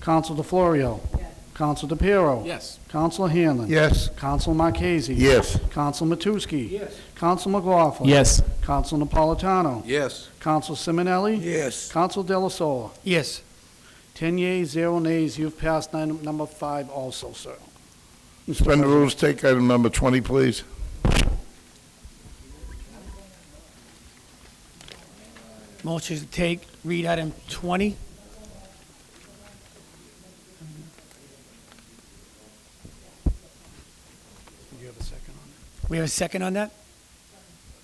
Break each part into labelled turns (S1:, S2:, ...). S1: Counsel DeFlorio. Yes. Counsel DePiero.
S2: Yes.
S1: Counsel Hanlon.
S3: Yes.
S1: Counsel Marchese.
S3: Yes.
S1: Counsel Matusky.
S2: Yes.
S1: Counsel McLaughlin.
S4: Yes.
S1: Counsel Napolitano.
S2: Yes.
S1: Counsel Simonelli.
S3: Yes.
S1: Counsel De La Sola.
S3: Yes.
S1: Ten yeas, zero nays. You've passed item number five also, sir.
S3: Suspend the rules, take item number 20, please.
S5: Motion to take, read item 20.
S1: You have a second on
S5: We have a second on that?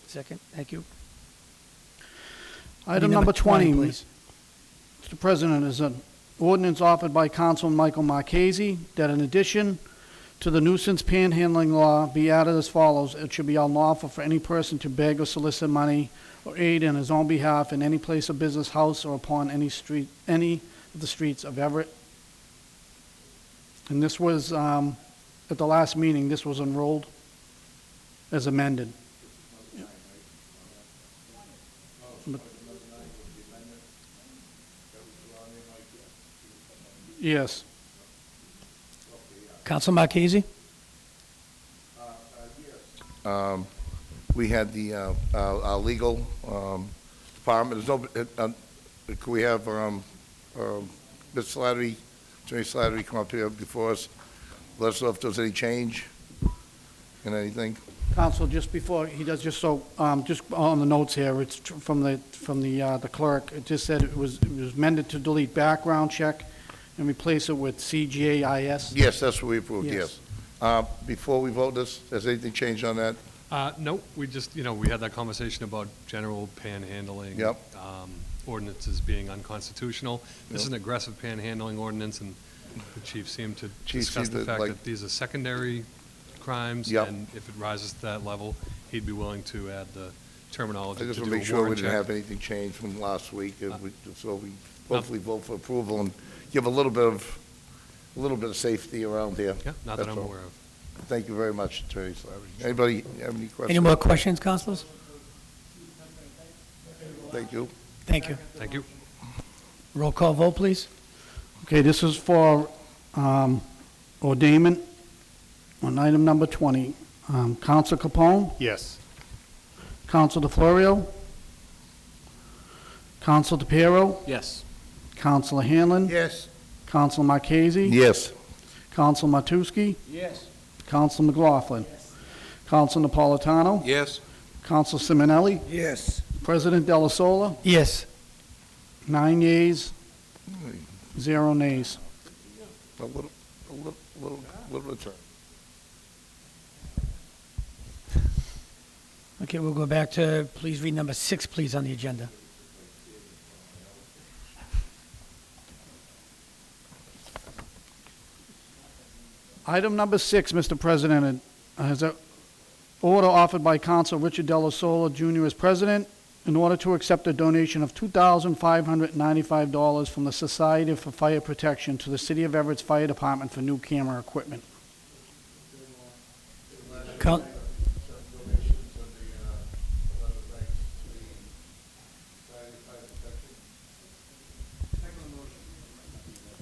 S5: Second, thank you.
S1: that? Item number 20,
S5: please.
S1: Mr. President, is an ordinance offered by Councilman Michael Marchese that in addition to the nuisance panhandling law be added as follows. It should be unlawful for any person to beg or solicit money or aid in his own behalf in any place of business, house, or upon any street, any of the streets of Everett. And this was, um, at the last meeting, this was enrolled as amended. Yes.
S5: Counsel Marchese?
S6: Uh,
S3: We had the, uh, our our legal um, department, there's no, uh, um, could we have um, um, Ms. Slattery, Attorney Slattery come up here before us? Let us know if there's any change in anything.
S1: Counsel, just before, he does, just so, um, just on the notes here, it's tr- from the, from the, uh, the clerk, it just said it was, it was amended to delete background check and replace it with CGIS.
S3: Yes, that's what we approved, yes.
S1: Yes.
S3: Uh, Before we vote this, has anything changed on that?
S6: Uh, no, we just, you know, we had that conversation about general panhandling.
S3: Yep.
S6: um, Ordinances being unconstitutional. This is an aggressive panhandling ordinance, and the chief seemed to
S3: Chief
S6: discuss
S3: seemed to
S6: the fact
S3: like-
S6: that these are secondary crimes.
S3: Yep.
S6: And if it rises to that level, he'd be willing to add the
S3: I
S6: terminology to
S3: just
S6: do
S3: want
S6: a
S3: to make sure we
S6: warrant
S3: didn't
S6: check.
S3: have anything changed from last week, and we- so we hopefully vote for approval and give a little bit of, a little bit of safety around here.
S6: Yeah, not that
S3: That's
S6: I'm
S3: all.
S6: aware of.
S3: Thank you very much, Attorney Slattery. Anybody have any questions?
S5: Any more questions, councilors?
S3: Thank you.
S5: Thank you.
S6: Thank you.
S5: Roll call vote, please.
S1: Okay, this is for, um, ordainment on item number 20. Um, Counsel Capone,
S2: Yes.
S1: Counsel DeFlorio, Counsel DePiero,
S2: Yes.
S1: Counsel Hanlon,
S3: Yes.
S1: Counsel Marchese,
S3: Yes.
S1: Counsel Matusky,
S2: Yes.
S1: Counsel McLaughlin, Counsel Napolitano,
S2: Yes.
S1: Counsel Simonelli,
S3: Yes.
S1: President Della Sola,
S5: Yes.
S1: nine yeas, zero nays.
S3: A little, a little, little, little bit.
S5: Okay, we'll go back to, please read number six, please, on the agenda.
S1: Item number six, Mr. President, is an order offered by Counsel Richard Della Sola Jr. as president in order to accept a donation of $2,595 from the Society for Fire Protection to the City of Everett's Fire Department for new camera equipment.
S5: Coun-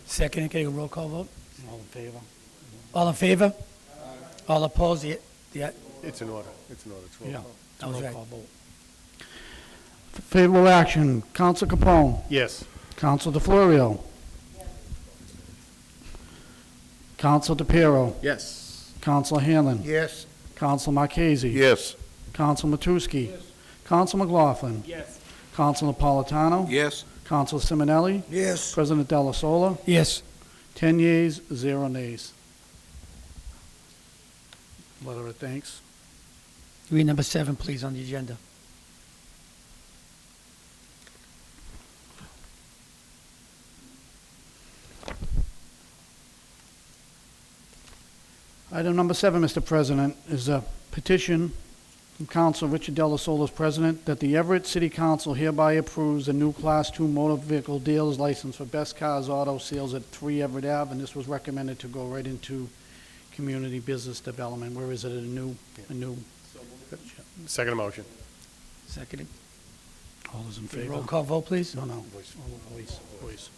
S5: Second, can you roll call vote?
S1: All in favor?
S5: All in favor? All opposed? The, the,
S2: It's an order. It's an order.
S1: Yeah.
S5: I was right.
S1: Favorable action, Counsel Capone.
S2: Yes.
S1: Counsel DeFlorio. Counsel DePiero.
S2: Yes.
S1: Counsel Hanlon.
S3: Yes.
S1: Counsel Marchese.
S3: Yes.
S1: Counsel Matusky. Counsel McLaughlin.
S2: Yes.
S1: Counsel Napolitano.
S2: Yes.
S1: Counsel Simonelli.
S3: Yes.
S1: President Dalla Sola.
S5: Yes.
S1: Ten yeas, zero nays. Letter of thanks.
S5: Read number seven, please, on the agenda.
S1: Item number seven, Mr. President, is a petition from Council Richard Della Solis, President, that the Everett City Council hereby approves a new Class II motor vehicle dealer's license for Best Cars Auto Sales at 3 Everett Ave, and this was recommended to go right into community business development. Where is it, a new, a new,
S2: Second motion.
S5: Second.
S1: all those in
S5: Roll
S1: favor?
S5: call vote, please.
S1: No, no, voice, voice, voice.